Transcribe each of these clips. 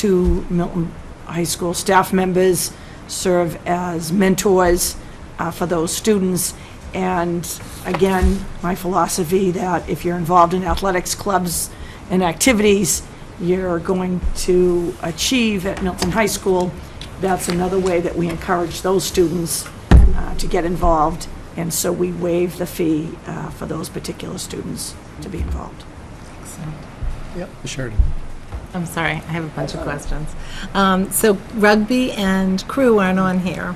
two Milton High School staff members serve as mentors uh, for those students. And again, my philosophy that if you're involved in athletics clubs and activities, you're going to achieve at Milton High School. That's another way that we encourage those students uh, to get involved. And so we waive the fee uh, for those particular students to be involved. Yep, Sheridan. I'm sorry, I have a bunch of questions. Um, So rugby and crew aren't on here.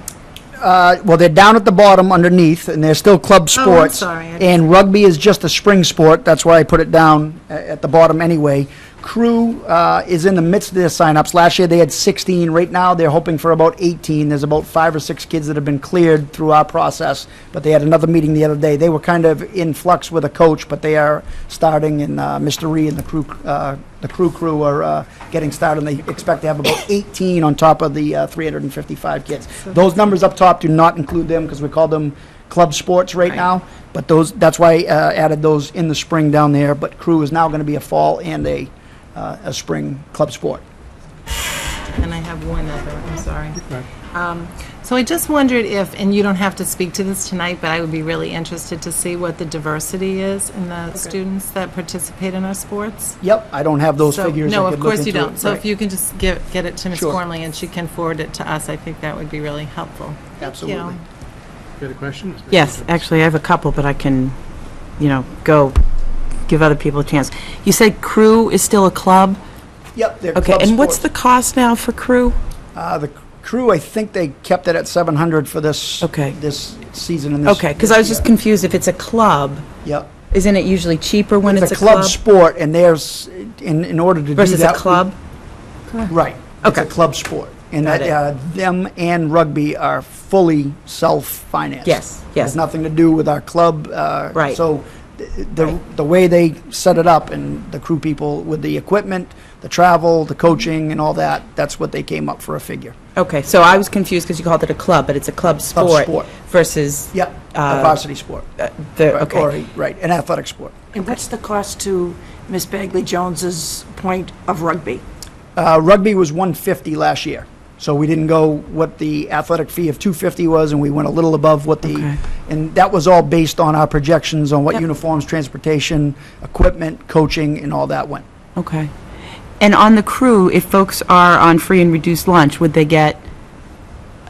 Uh, well, they're down at the bottom underneath, and they're still Oh, club I'm sports. sorry, I- And rugby is just a spring sport, that's why I put it down a- at the bottom anyway. Crew uh, is in the midst of their signups. Last year, they had 16. Right now, they're hoping for about 18. There's about five or six kids that have been cleared through our process, but they had another meeting the other day. They were kind of in flux with a coach, but they are starting, and uh, Mr. Ree and the crew, uh, the crew crew are uh, getting started, and they expect to have about 18 on top of the uh, 355 kids. Those numbers up top do not include them, because we call them club sports right Right. now, but those, that's why I uh, added those in the spring down there, but crew is now going to be a fall and a, uh, a spring club sport. And I have one other, I'm sorry. Um, So I just wondered if, and you don't have to speak to this tonight, but I would be really interested to see what the diversity is in the students that participate in our sports. Yep, I don't have those So- figures. I No, could of look course you into it. don't. So Right. if you can just get, get it to Ms. Sure. Gormley and she can forward it to us, I think that would be really helpful. Absolutely. You had a question? Yes, actually, I have a couple, but I can, you know, go give other people a chance. You said crew is still a club? Yep, they're Okay, club and what's the sports. cost now for crew? Uh, the crew, I think they kept it at 700 for this, Okay. this season and this. Okay, because I was just yeah, confused, if it's a club, Yep. isn't it usually cheaper when it's a It's club? sport, and there's, in, in order to do that. Versus a we- club? Right. It's a Okay. club sport. And Got that, uh, them and rugby are fully self-financed. Yes, It yes. has nothing to do with our club. uh, Right. So th- the, the way they set it up and the crew people with the equipment, the travel, the coaching and all that, that's what they came up for a figure. Okay, so I was confused because you called it a club, but it's a club sport sport. versus Yep, a Uh, varsity sport. uh, the, Right, or okay. a- Right, an athletic sport. And what's the cost to Miss Bagley Jones's point of rugby? Uh, Rugby was 150 last year, so we didn't go what the athletic fee of 250 was, and we went a little above what the, Okay. and that was all based on our projections on what Yep. uniforms, transportation, equipment, coaching, and all that went. Okay. And on the crew, if folks are on free and reduced lunch, would they get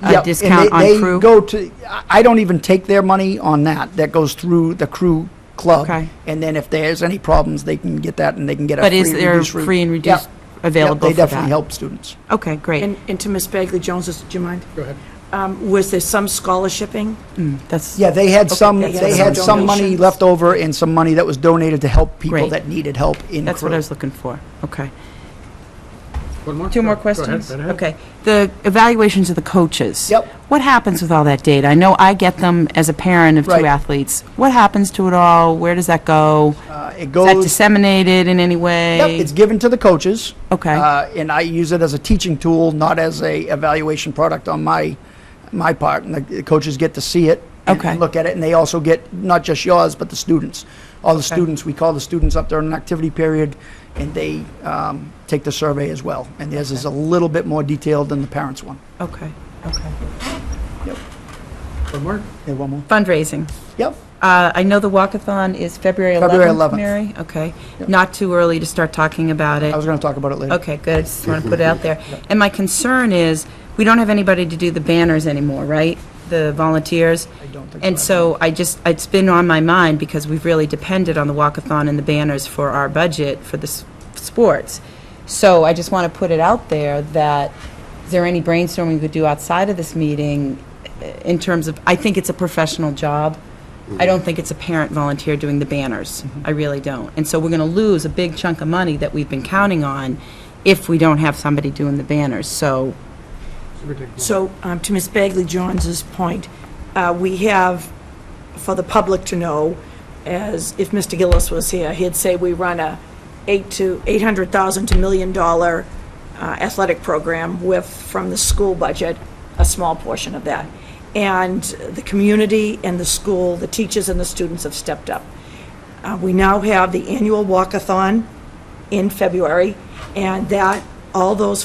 Yep, a and discount they- on crew? They go to, I- I don't even take their money on that, that goes through the crew club. Okay. And then if there's any problems, they can get that, and they can get a free But is and there reduced route. free and Yep, reduced yep, available for They definitely that? help students. Okay, great. And and to Miss Bagley Jones's, do you mind? Go ahead. Um, Was there some scholarshiping? Mm, That's, Yeah, they had some, that's they what had I'm some money donations. left over and some money that was donated to help people Great. that needed help in that's what I crew. was looking for. Okay. One more? Two more Go- go ahead, questions? right ahead. Okay. The evaluations of the coaches. Yep. What happens with all that data? I know I get them as a parent of two Right. athletes. What happens to it all? Where does that go? Uh, It Is that goes, disseminated in any way? yep, it's given to the coaches. Okay. Uh, And I use it as a teaching tool, not as a evaluation product on my, my part. And the- the coaches get to see it. and- Okay. And look at it, and they also get, not just yours, but the students. All the students, we call the students up during an activity period, and they um, take the survey as well. And theirs is a little bit more detailed than the parents' one. Okay, okay. One more? Yeah, one more? Fundraising. Yep. Uh, I know the walkathon is February 11th. February 11th. Mary, okay. Not too early to start talking about it. I was going to talk about it later. Okay, good, I just want to put it out there. And my concern is, we don't have anybody to do the banners anymore, right? The volunteers? I don't think And so I just, it's been on my mind because we've really depended on the walkathon and the banners for our budget for the s- sports. So I just want to put it out there that, is there any brainstorming we could do outside of this meeting uh, in terms of, I think it's a professional job. I don't think it's a parent volunteer doing the banners. I really don't. And so we're going to lose a big chunk of money that we've been counting on if we don't have somebody doing the banners. So, Somebody take- So um, to Miss Bagley Jones's point, uh, we have, for the public to know, as if Mr. Gillis was here, he'd say we run a eight to, 800,000 to million dollar uh, athletic program with, from the school budget, a small portion of that. And the community and the school, the teachers and the students have stepped up. Uh, We now have the annual walkathon in February, and that, all those